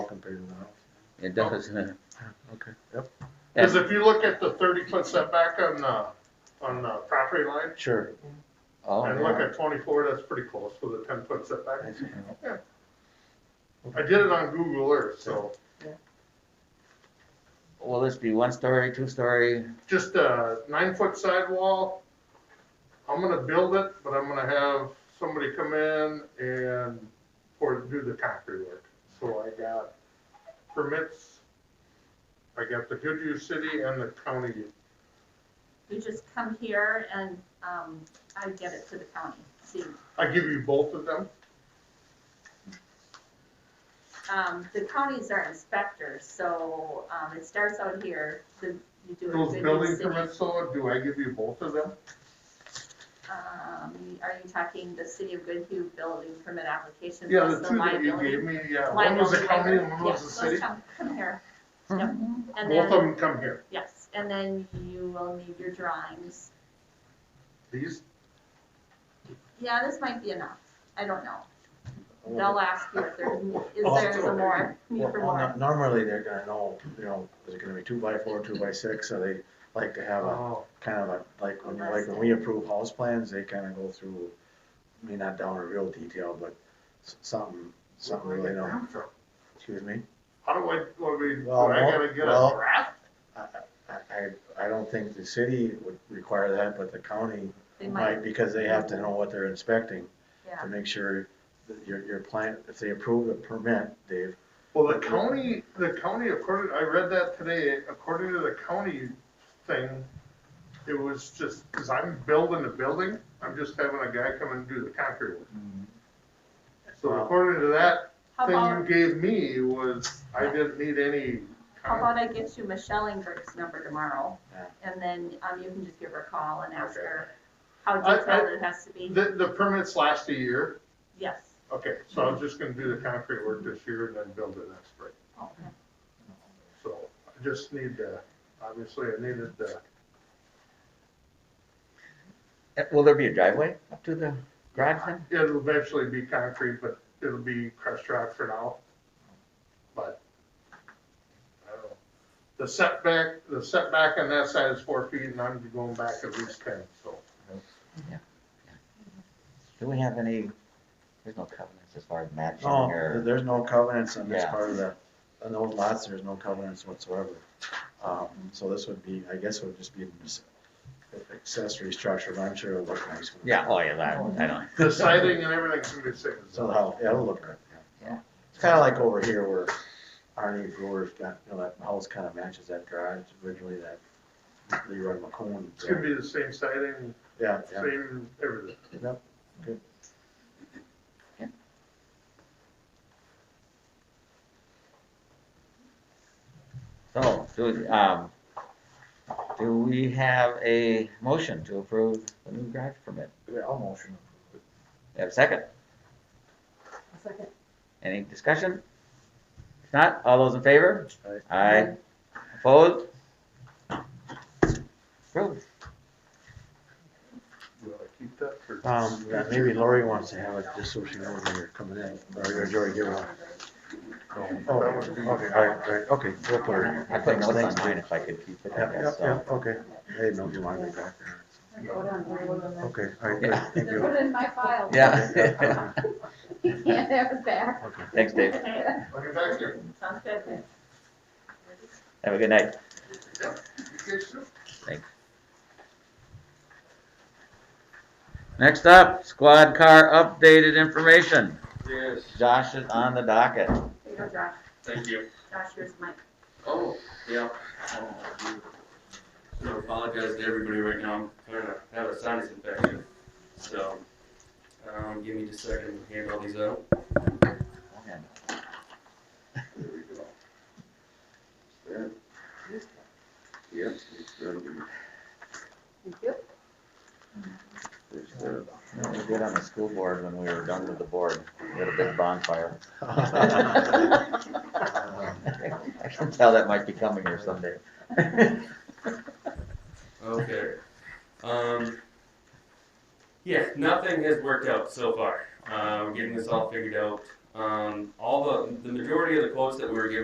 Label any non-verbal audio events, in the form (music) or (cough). bigger than ours. It does. (laughs) Okay, yep. Because if you look at the thirty foot setback on the, on the property line, Sure. Oh, and look yeah. at twenty-four, that's pretty close with a ten foot setback. That's- I did it on Google Earth, so Will this be one story, two story? just a nine foot sidewall. I'm gonna build it, but I'm gonna have somebody come in and pour, do the concrete work. So I got permits, I got the Goodview City and the county. You just come here and, um, I get it to the county, see. I give you both of them. Um, the counties are inspectors, so, um, it starts out here, the, you do Those it in the building city. permits, so do I give you both of them? Um, are you talking the city of Goodhue building permit application? Yeah, plus the two that you liability- gave me, yeah, one was the liability county waiver? and one was Yeah, the those city. come- Come here, yep, and Both of then, them come here, yes, and then you will need your drawings. these, Yeah, this might be enough, I don't know, they'll ask you if there, is Oh, there some more, need Well, for well, more. no- normally they're gonna know, you know, is it gonna be two by four, two by six, so they like to have a, oh, kind of a, like, when, like when we approve house plans, they kinda go through, I mean, not down to real detail, but s- something, where something do I really, get know. them from? excuse me? How do I, what do we, do Well, I gotta get well- a draft? I, I- I, I don't think the city would require that, but the county They might, might, because they have to know what they're inspecting yeah. to make sure that your, your plan, if they approve the permit, Dave, Well, the county, the county, according, I read that today, according to the county thing, it was just, cause I'm building the building, I'm just having a guy come and do the concrete work. So Wow. according to that How about, thing you gave me was, I didn't need any. how about I get you Michelle Ingrid's number tomorrow? Yeah. And then, um, you can just give her a call and ask Okay. her how I- I- detailed it has to be, The, the permits last a year, yes. Okay, so I'm just gonna do the concrete work this year and then build it next spring. Okay. So I just need to, obviously I needed the, Uh, Will there be a driveway up to the garage then? it'll eventually be concrete, but it'll be crushed rock for now. But, I don't know. The setback, the setback on that side is four feet and I'm going back at least ten, so. Do we have any, there's no covenants as far as matching no, or? Oh, there's no covenants on this Yeah. part of the, on those lots, there's no covenants whatsoever. Um, so this would be, I guess it would just be an ac- accessory structure, but I'm sure it'll look nice. when- Yeah, oh yeah, that, I don't. The siding and everything's gonna be the same. as So that. how, yeah, it'll look good. Yeah. It's kinda like over here where Arnie Brewer's got, you know, that house kinda matches that garage, originally that Leroy McCone. It's gonna be the same siding, Yeah, yeah. same everything. So, do, um, do we have a motion to approve the new garage permit? Yeah, I'll motion. We Have a second? Second. Any discussion? If not, all those in favor? Aye. Aye. Opposed? Approved. Do I keep that for? Um, yeah, maybe Lori wants to have it, just so she knows when you're coming in, or you're already giving up. Oh, okay, okay, all right, all right, okay, we'll put her in. I put Thanks, notes on thanks, mine Dave. if I could keep it, Yeah, I yeah, guess, yeah, so. okay, I didn't know if you wanted me back there, okay, all right, good, Yeah. thank you. Put it in my file. Okay, Yeah. yeah, You can't have it back. Okay. (laughs) Thanks, Dave. Look at that here. (laughs) Sounds good. Have a good night. You guys do? Next up, squad car updated information. Yes, Josh is on the docket. Here you go, Josh, thank you. Josh, here's Mike. Oh, yeah. Oh, I do apologize to everybody right now, I'm trying to have a sinus infection. So, um, give me just a second to hand all these out. There we go. That. Yep. it's gonna be- there's the- You know, we did on the school board when we were done with the board. We had a big bonfire. (laughs) (laughs) I can tell that might be coming here someday. (laughs) Okay. Um, yeah, nothing has worked out so far. Uh, we're getting this all figured out. Um, all the, the majority of the quotes that we were given